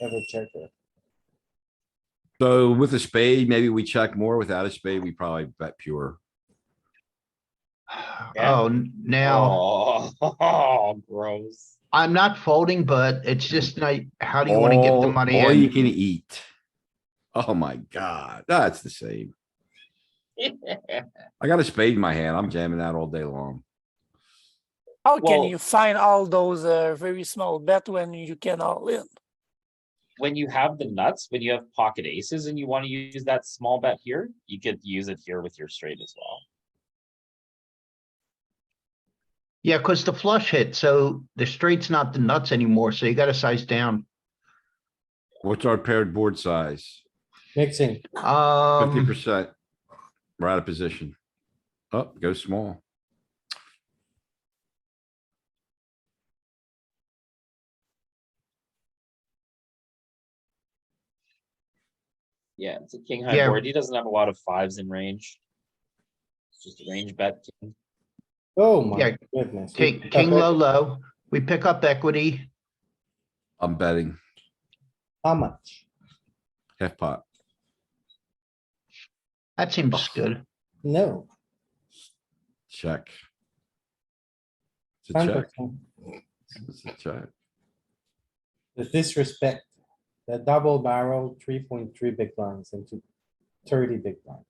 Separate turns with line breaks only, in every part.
ever checker.
So with a spade, maybe we check more. Without a spade, we probably bet pure.
Yeah.
Oh, n- now,
Oh, gross.
I'm not folding, but it's just like, how do you wanna get the
All-
money
All you
in?
can eat. Oh my god, that's the same. I got a spade in my hand. I'm jamming that all day long.
How can
Well-
you find all those uh, very small bet when you can all in?
When you have the nuts, when you have pocket aces and you wanna use that small bet here, you could use it here with your straight as well.
Yeah, cuz the flush hit, so the straight's not the nuts anymore, so you gotta size down.
What's our paired board size?
Mixing,
Fifty
Um,
percent. We're out of position. Up, go small.
Yeah, it's a king high
Yeah.
board. He doesn't have a lot of fives in range. It's just a range bet. king.
oh
Yeah,
my goodness. we
king,
pick up
king
it.
low, low, we pick up equity,
I'm betting
How much?
half pot.
that seems good.
No,
Check. It's a
ten
check.
percent.
It's a check.
The disrespect, the double barrel, three point three big blinds into thirty big blinds.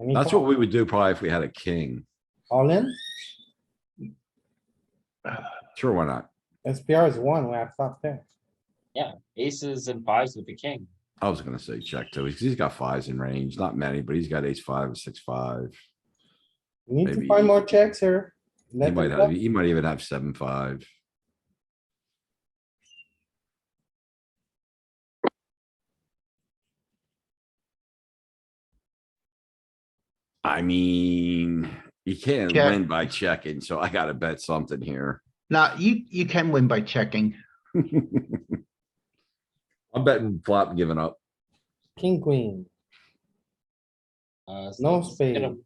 And he
That's
called.
what we would do probably if we had a king.
All in,
Sure, why not?
SPR is one, we have top pair.
Aces and fives with the king.
I was gonna say check too. He's- He's got fives in range, not many, but he's got ace five, and six, five.
We Need to
Maybe-
find more checks here.
He
Let
might
it
have,
go.
he might even have seven, five. I mean, you can't
Check.
win by checking, so I gotta bet something here.
Now, you, you can win by checking.
I'm betting flop and giving up.
King, queen,
Uh, so
no
that's gonna-
spade.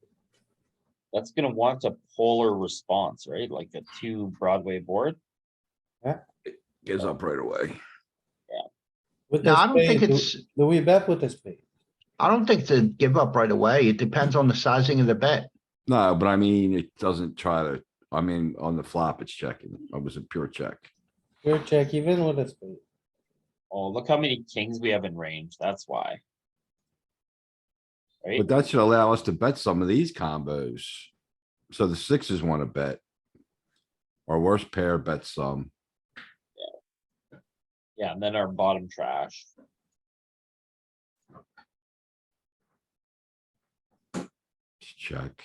That's gonna want a polar response, right? Like a two Broadway board.
Gives up right away.
With
No,
the
I don't think
spade, do-
it's,
Do we bet with the spade?
I don't think to give up right away, it depends on the sizing of the bet.
No, but I mean, it doesn't try to, I mean, on the flop, it's checking. It was a pure check.
Pure check, even with a spade.
Oh, look how many kings we have in range. That's why. Right?
But that should allow us to bet some of these combos. So the sixes wanna bet. Our worst pair bets some.
Yeah, and then our bottom trash.
Let's Check.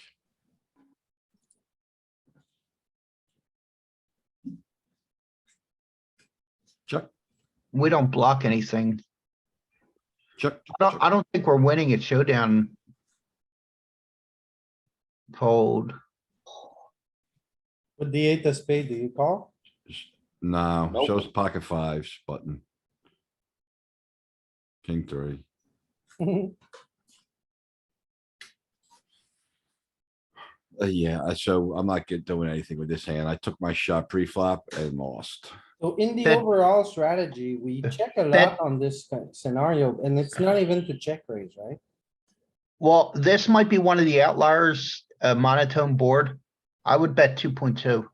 Check,
We don't block anything.
check.
I don't, I don't think we're winning at showdown. Fold.
With the eight of spade, do you call?
No,
Nope.
shows pocket fives button. King three. Uh, yeah, I- so I'm not get, doing anything with this hand. I took my shot pre-flop and lost.
So in the
That-
overall strategy, we check a lot
that-
on this kind of scenario and it's not even to check raise, right?
Well, this might be one of the outliers, a monotone board. I would bet two point two.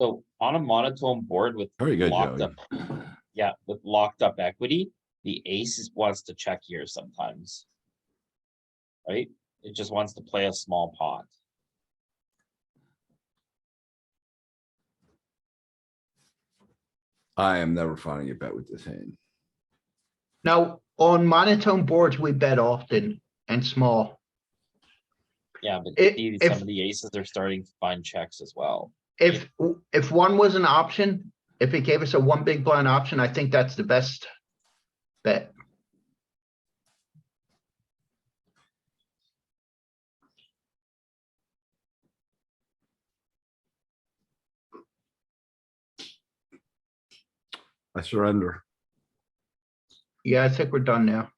So on a monotone board with
Very good,
locked
Joey.
up, yeah, with locked up equity, the ace is- wants to check here sometimes. Right? It just wants to play a small pot.
I am never finding a bet with this hand.
Now, on monotone boards, we bet often and small.
Yeah, but
It-
the-
if-
some of the aces are starting to find checks as well.
If, if one was an option, if it gave us a one big blind option, I think that's the best bet.
I surrender.
Yeah, I think we're done now.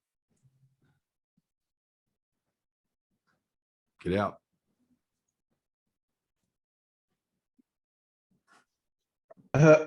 Get out.
Uh,